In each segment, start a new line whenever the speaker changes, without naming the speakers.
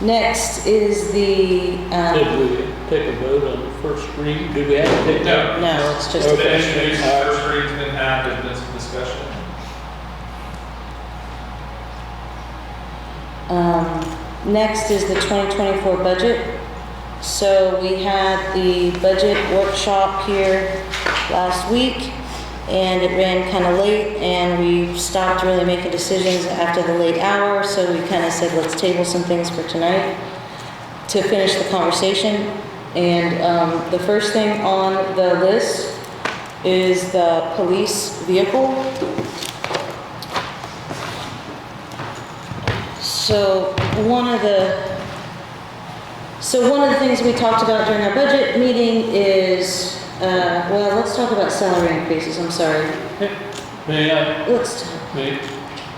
Next is the,
Did
um,
we take a vote on the first reading? Do we have to take?
No.
no, it's just,
Okay.
Today's today's first reading's been had, there's been some discussion.
um, next is the 2024 budget. So we had the budget workshop here last week, and it ran kind of late, and we stopped really making decisions after the late hour, so we kind of said, let's table some things for tonight to finish the conversation. And um, the first thing on the list is the police vehicle. So one of the so one of the things we talked about during our budget meeting is, uh, well, let's talk about salary increases, I'm sorry.
May I,
Let's, talk-
may,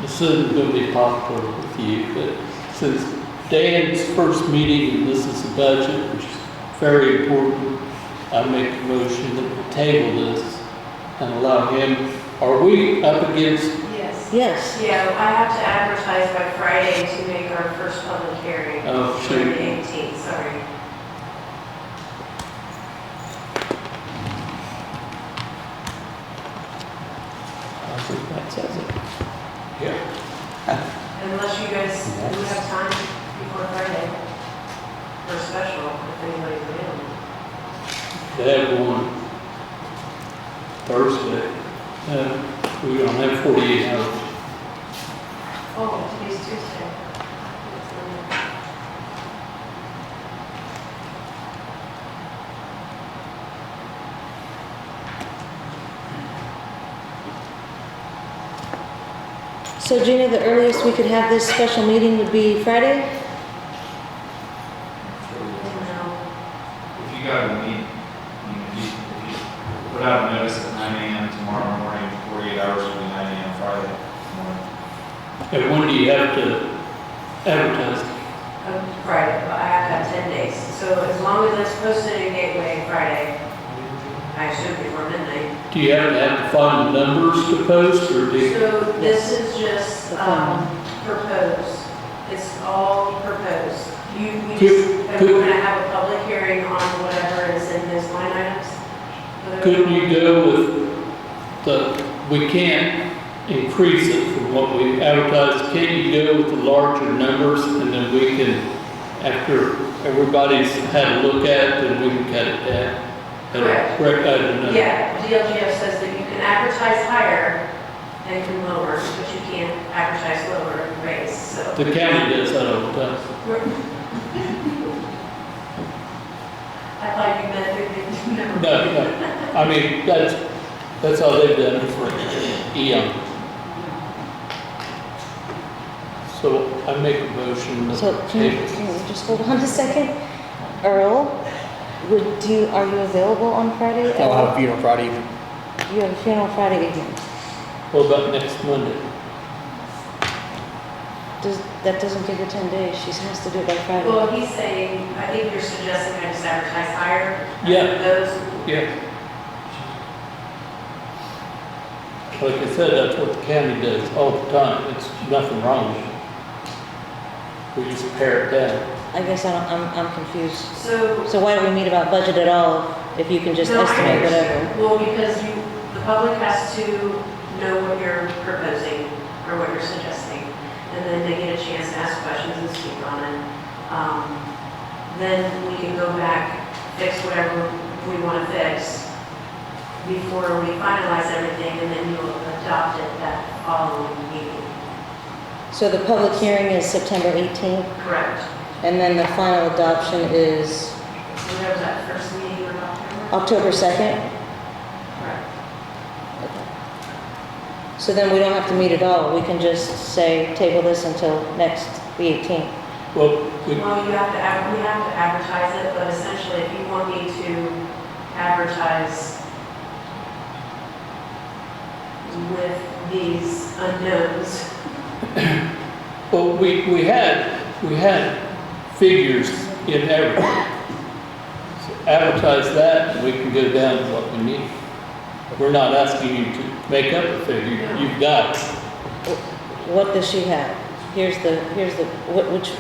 this isn't gonna be popular with you, but since Dan's first meeting, and this is a budget, which is very important, I make a motion that we table this and allow him, are we up against,
Yes.
yes,
Yeah, I have to advertise by Friday to make our first public hearing.
Oh,
For
shoot.
The 18th, sorry.
I think that says it.
Yeah.
Unless you guys, do you have time before Friday for special, if anybody's available.
They have one Thursday. Uh, we don't have forty-eight hours.
Oh, today's Tuesday.
so Gina, the earliest we could have this special meeting would be Friday?
Oh, No,
If you got a meet, I mean, if you, if you put out a notice at nine AM tomorrow morning, forty-eight hours will be nine AM Friday morning.
And when do you have to advertise?
um, Friday, but I have to have 10 days. So as long as it's posted in Gateway Friday, I should before midnight.
Do you have to have the final numbers to post or do you?
So this is just
The
um,
phone.
proposed. It's all proposed. You, we just,
Could-
and
could-
we're gonna have a public hearing on whatever is in those line items. Whatever-
Couldn't you go with the, we can't increase it from what we advertised. Can't you go with the larger numbers and then we can, after everybody's had a look at it, then we can cut it down? at a
Correct.
Correct, I don't know.
Yeah, DLGF says that you can advertise higher and can lower, but you can't advertise lower and raise, so.
The county does that all the time.
we're- I thought you meant, we
No,
didn't know.
no, I mean, that's, that's how they've done it for E eons. So I make a motion. that-
So can you, can you just hold on a second? Earl, would you, are you available on Friday?
I'll have a funeral Friday evening.
You have a funeral Friday evening.
What about next Monday?
Does, that doesn't give her 10 days, she has to do it by Friday.
Well, he's saying, I think you're suggesting I just advertise higher.
Yeah.
Those
Yeah. Like I said, that's what the county does all the time. It's nothing wrong with it. We just pare it down.
I guess I don't, I'm, I'm confused.
So.
So why do we meet about budget at all if you can just
No, I
estimate whatever?
understand. Well, because you, the public has to know what you're proposing or what you're suggesting. And then they get a chance to ask questions and speak on it. Um, Then we can go back, fix whatever we want to fix before we finalize everything and then you'll adopt it that following meeting.
So the public hearing is September 18th,
Correct.
and then the final adoption is
So there was that first meeting in October?
October 2nd?
Correct.
So then we don't have to meet at all, we can just say, table this until next, the 18th.
Well, we,
Well, you have to, ad- we have to advertise it, but essentially, if you want me to advertise with these unknowns,
well, we, we had, we had figures in everything. So Advertise that and we can go down to what we need. We're not asking you to make up a figure. You've got it.
What does she have? Here's the, here's the, wh- which